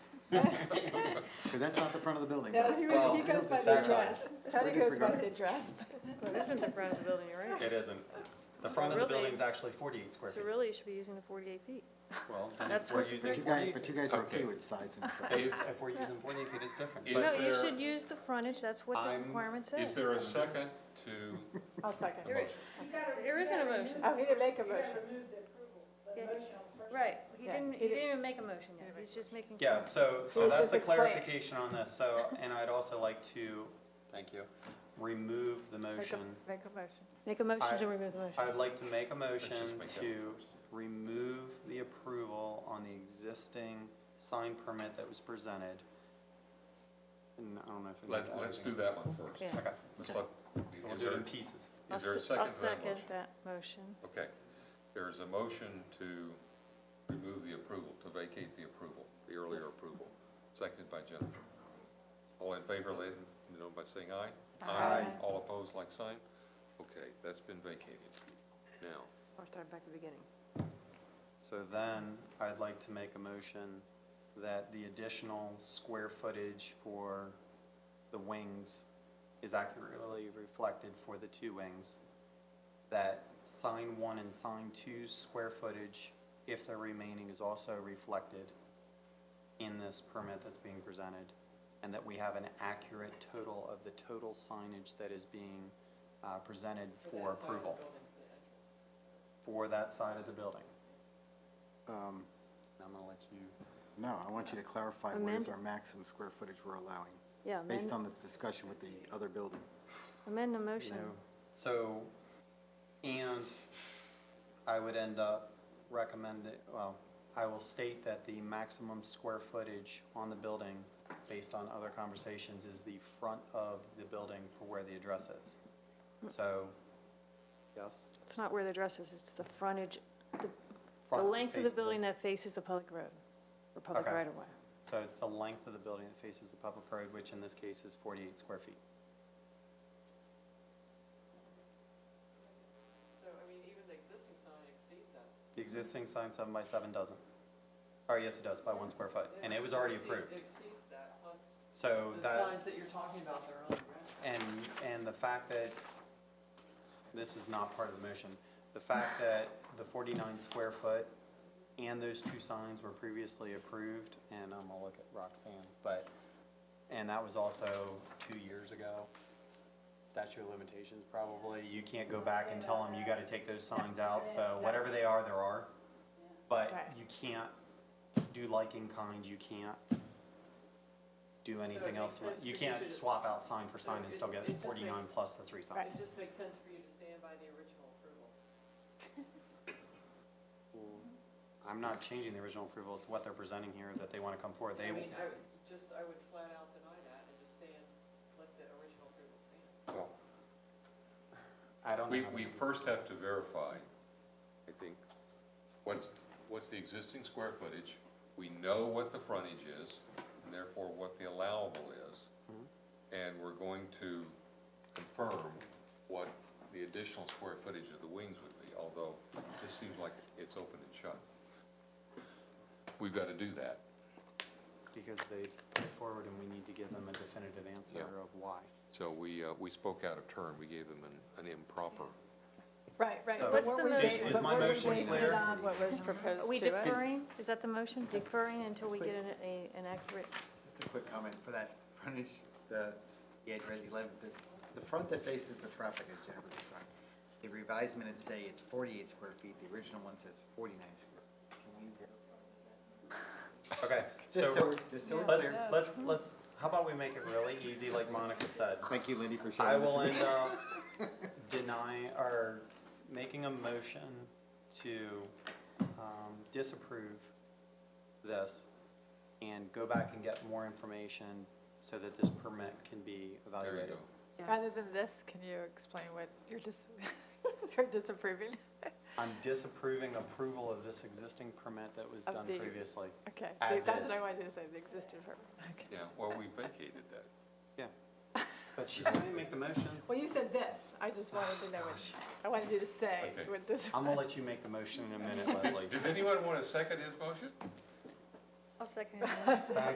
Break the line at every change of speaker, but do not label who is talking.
Because that's not the front of the building.
No, he,
Well,
was- he goes by the
that's fine.
address. Teddy
We're
goes by
disregarding.
the address, but
Well, it isn't the front of the building, you're right.
It isn't. The
So
front of the
really-
building's actually forty-eight square
So
feet.
really, you should be using the 48 feet.
Well, then
That's
if we're
what the
using
But you guys,
48
but you guys are okay
Okay.
with sides and stuff.
feet- If if we're using forty-eight feet, it's different.
Is
No, you
there-
should use the frontage, that's what the
I'm-
requirement
Is
says.
there a second to
I'll
the
second.
There is.
motion?
There isn't a motion.
Oh, he didn't make a motion.
Yeah. Right, he
Yeah,
didn't,
he
he
didn't-
didn't even make a motion yet, he's just making.
Yeah, so, so
Please
that's
just
the
explain.
clarification on this, so, and I'd also like to, thank you, remove the
Make a,
motion.
make a motion.
Make a motion
I-
to remove the motion.
I would like to make a motion
just make that
to
one first.
remove the approval on the existing sign permit that was presented. And I don't know if. I need
Let,
to add
let's do
anything
that one first.
Yeah.
else. Okay,
Let's
Okay.
so
let,
we'll
is
do
there,
it in pieces.
I'll
is there a
se- I'll
second to that
second that
motion?
motion.
Okay, there is a motion to remove the approval, to vacate the approval, the earlier
Yes.
approval, seconded by Jennifer. All in favor, let it be known by saying aye.
Aye.
All opposed, like sign? Okay, that's been vacated. Now,
I'll start back at the beginning.
So then, I'd like to make a motion that the additional square footage for the wings is accurately reflected for the two wings. That sign one and sign two's square footage, if they're remaining, is also reflected in this permit that's being presented. And that we have an accurate total of the total signage that is being, uh, presented for approval. For that side of the building.
Um,
And I'm gonna let you.
No, I want you to clarify what is
Amend-
our maximum square footage we're allowing,
Yeah,
based
amend,
on the discussion with the other building.
amend the motion.
know. So, and I would end up recommending, well, I will state that the maximum square footage on the building, based on other conversations, is the front of the building for where the address is.
Hmm.
So, yes?
It's not where the address is, it's the frontage, the
front
length of
face
the building that faces the public road, or public
Okay.
right of way.
So it's the length of the building that faces the public road, which in this case is forty-eight square feet.
So, I mean, even the existing sign exceeds that.
The existing sign seven by seven doesn't. Or yes, it does, by one square foot, and it was already
Exceed-
approved.
Exceeds that, plus
So
the
that.
signs that you're talking about, they're on the
And, and the fact that, this is not part of the motion, the fact that the forty-nine square foot and those two signs were previously approved, and I'm gonna look at Roxanne, but, and that was also two years ago. Statute of limitations, probably, you can't go back and tell them you gotta take those signs out, so whatever they are, there are. But
Right.
you can't do like in kind, you can't do
it
anything
makes
else,
sense
you
for you
can't
to-
swap out sign for
So
sign and
it-
still get
it just
forty-nine
makes-
plus the three signs.
ground. It just makes sense for you to stand by the original approval.
I'm not changing the original approval, it's what they're presenting here that they wanna come forward,
I
they,
mean, I would, just, I would flat out deny that and just stand, let the original approval stand.
well,
I don't know.
we,
how to
we
do-
first have to verify, I think, what's, what's the existing square footage? We know what the frontage is, and therefore what the allowable is.
Mm-hmm.
And we're going to confirm what the additional square footage of the wings would be, although this seems like it's open and shut. We've got to do that.
Because they put it forward and we need to give them a definitive answer
Yeah.
of why.
So we, uh, we spoke out of turn, we gave them an, an improper.
Right,
right. So-
What's the
Is- is my motion clear?
What was
Are
proposed
we
to us.
deferring? Is that the motion? Deferring until we get an, a- an accurate,
Just a quick comment for that frontage, the, the address eleven, the, the front that faces the traffic as Jennifer described. The revised minutes say it's forty-eight square feet, the original one says forty-nine square. Can we-
Okay,
Just so,
so,
we're- just so we're
let's,
clear,
let's, let's, how about we make it really easy like Monica said?
Thank you, Lindy, for
I
sharing that
will
to me.
end up denying, or making a motion to um, disapprove this and go back and get more information so that this permit can be
There you
evaluated.
go.
Rather than this, can you explain what you're dis, you're disapproving?
I'm disapproving approval of this existing permit that was
Of
done
the-
previously.
Okay,
As
that's what
is.
I wanted to say, the existing permit. Okay.
Yeah, well, we vacated that.
But she said to make the motion.
Well, you said this, I just wanted to know what, I wanted you to say
Okay.
what this.
I'm gonna let you make the motion in a minute, Leslie.
Does anyone want to second his motion?
I'll second it.